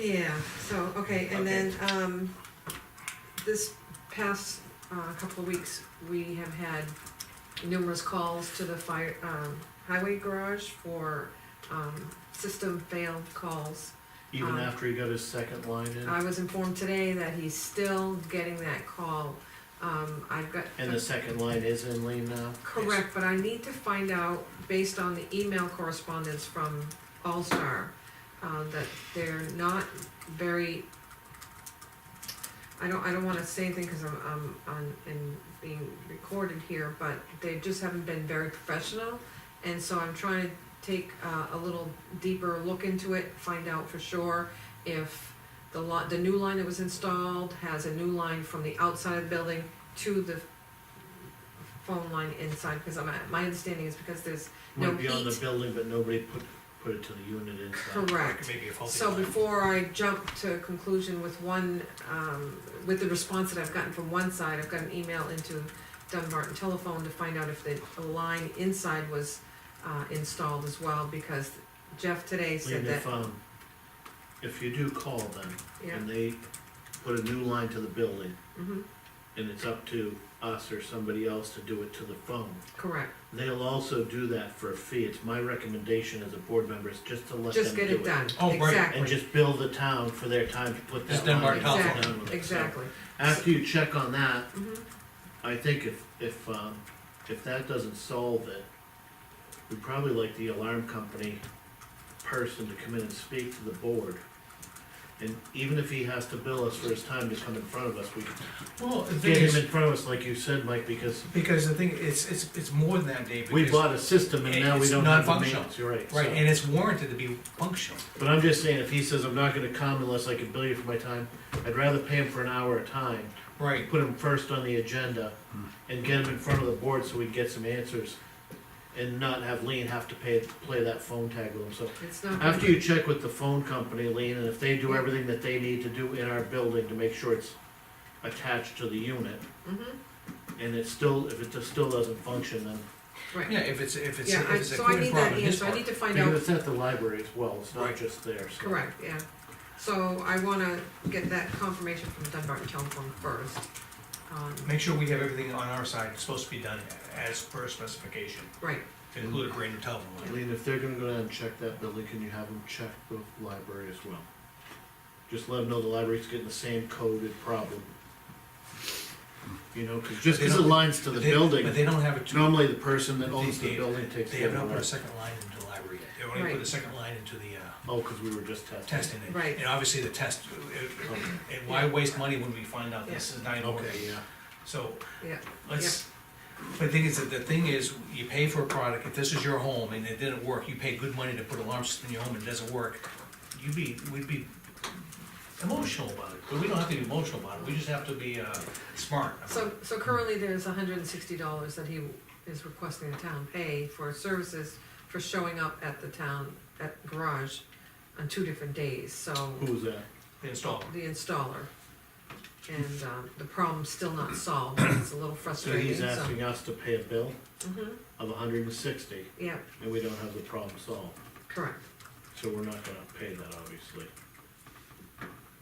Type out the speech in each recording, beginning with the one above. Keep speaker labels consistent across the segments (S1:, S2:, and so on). S1: Yeah, so, okay, and then, um, this past, uh, couple of weeks, we have had numerous calls to the fire, um, highway garage for, um, system fail calls.
S2: Even
S1: Um,
S2: after he got his second line in,
S1: I was informed today that he's still getting that call. Um, I've got.
S2: and the second line is in lean now?
S1: Correct, but I need to find out, based on the email correspondence from All-Star, uh, that they're not very, I don't, I don't wanna say anything, cause I'm, I'm, on in being recorded here, but they just haven't been very professional. And so I'm trying to take, uh, a little deeper look into it, find out for sure if the lot, the new line that was installed has a new line from the outside of the building to the phone line inside, because I'm, my understanding is because there's no
S2: Might be on the
S1: heat.
S2: building, but nobody put, put it to the unit inside.
S1: correct.
S3: Maybe a faulty
S1: So
S3: line.
S1: before I jump to a conclusion with one, um, with the response that I've gotten from one side, I've got an email into Dunbarton Telephone to find out if the the line inside was, uh, installed as well, because Jeff today said
S2: And
S1: that,
S2: if, um, if you do call them,
S1: yeah,
S2: and they put a new line to the building,
S1: mhm,
S2: and it's up to us or somebody else to do it to the phone,
S1: correct,
S2: they'll also do that for a fee. It's my recommendation as a board member is just to let them do it.
S1: just get it done,
S3: Oh, right,
S1: exactly.
S2: And
S3: and
S2: just bill the town for their time to put
S3: Just
S2: that line.
S3: Dunbar
S2: in.
S3: Telephone.
S2: Done with
S1: Exactly, exactly,
S2: it. So After you check on that,
S1: mhm.
S2: I think if, if, um, if that doesn't solve it, we'd probably like the alarm company person to come in and speak to the board. And even if he has to bill us for his time to come in front of us, we could
S3: Well, the
S2: get
S3: thing
S2: him
S3: is,
S2: in front of us, like you said, Mike, because
S3: because the thing, it's, it's, it's more than that, Dave.
S2: we
S3: because-
S2: bought a system and now we
S3: It's
S2: don't have the
S3: non-functional.
S2: maintenance, you're right. so-
S3: Right, and it's warranted to be functional.
S2: But I'm just saying, if he says, I'm not gonna come unless I can bill you for my time, I'd rather pay him for an hour at a time
S3: Right.
S2: put them first on the agenda and get them in front of the board so we can get some answers and not have Lean have to pay, play that phone tag with them, so.
S1: it's not.
S2: After you check with the phone company, Lean, and if they do everything that they need to do in our building to make sure it's attached to the unit,
S1: Mhm,
S2: and it still, if it just still doesn't function, then,
S1: right,
S3: Yeah, if it's, if it's,
S1: yeah,
S3: if
S1: I,
S3: it's a
S1: so I
S3: clear
S1: need that
S3: problem, his
S1: answer, I
S3: part.
S1: need to find out
S2: because it's at the library as well, it's not
S3: Right.
S2: just there, so.
S1: Correct, yeah. So I wanna get that confirmation from Dunbarton Telephone first. Um,
S3: Make sure we have everything on our side, it's supposed to be done as per specification,
S1: Right,
S3: to include a brand new telephone line.
S2: Lean, if they're gonna go down and check that building, can you have them check the library as well? Just let them know the library's getting the same coded problem. You know, 'cause just 'cause it lines to the
S3: But they- But
S2: building,
S3: they don't have it, to-
S2: normally the person that owns the building takes
S3: they
S2: care
S3: have
S2: of
S3: not put a
S2: it.
S3: second line into the library yet. They only
S1: Right.
S3: put the second line into the, uh,
S2: Oh, 'cause we were just testing.
S3: testing. it.
S1: Right.
S3: And obviously the test, uh, uh, and why waste money when we find out this is not even working?
S2: Okay, yeah,
S3: So,
S1: yeah,
S3: Let's, but the thing is, that the thing is, you pay for a product, if this is your home and it didn't work, you pay good money to put an alarm system in your home and it doesn't work, you'd be, we'd be emotional about it, but we don't have to be emotional about it, we just have to be, uh, smart. about
S1: so,
S3: it.
S1: so currently there's hundred and sixty dollars that he is requesting the town pay for services for showing up at the town, at garage on two different days, so
S2: who was that?
S3: The installer.
S1: the installer. And, um, the problem's still not solved, it's a little
S2: So
S1: frustrating,
S2: he's
S1: so.
S2: asking us to pay a bill
S1: Mhm,
S2: of hundred and sixty,
S1: Yeah,
S2: and we don't have the problem solved,
S1: correct.
S2: so we're not gonna pay that, obviously.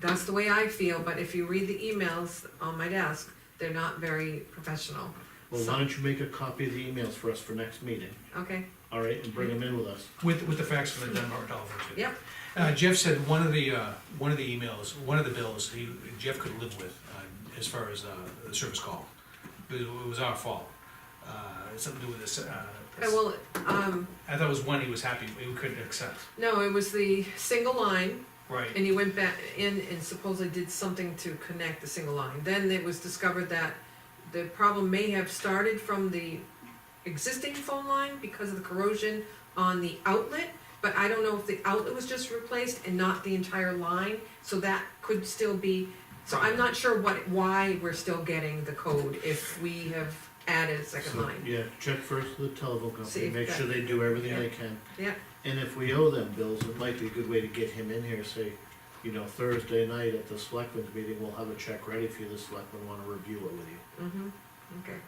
S1: That's the way I feel, but if you read the emails on my desk, they're not very professional.
S2: Well, why don't you make a copy of the emails for us for next meeting,
S1: Okay,
S2: all right, and bring them in with us?
S3: With, with the facts from the Dunbar telephone. too.
S1: yep,
S3: Uh, Jeff said one of the, uh, one of the emails, one of the bills, he, Jeff could live with, uh, as far as, uh, the service call. It was our fault, uh, something to do with this, uh.
S1: Uh, well, um,
S3: I thought it was one he was happy, we couldn't accept.
S1: no, it was the single line,
S3: Right.
S1: and he went back in and supposedly did something to connect the single line. Then it was discovered that the problem may have started from the existing phone line because of the corrosion on the outlet, but I don't know if the outlet was just replaced and not the entire line, so that could still be, so I'm not sure what, why we're still getting the code if we have added a second
S2: So,
S1: line.
S2: Yeah, check first with the telephone
S1: See
S2: company,
S1: if
S2: make
S1: that-
S2: sure they do everything they can.
S1: Yeah.
S2: And if we owe them bills, it might be a good way to get him in here, say, you know, Thursday night at the selectmen's meeting, we'll have a check ready for you, the selectmen wanna review it with you.
S1: Mm-hmm, okay.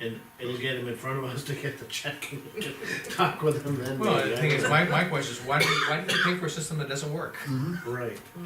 S2: And it'll get him in front of us to get the check and talk with him then.
S3: Well,
S2: maybe,
S3: the thing
S2: I
S3: is,
S2: don't
S3: my, my question is, why do, why do they pay for a system that doesn't work?
S2: know. Right.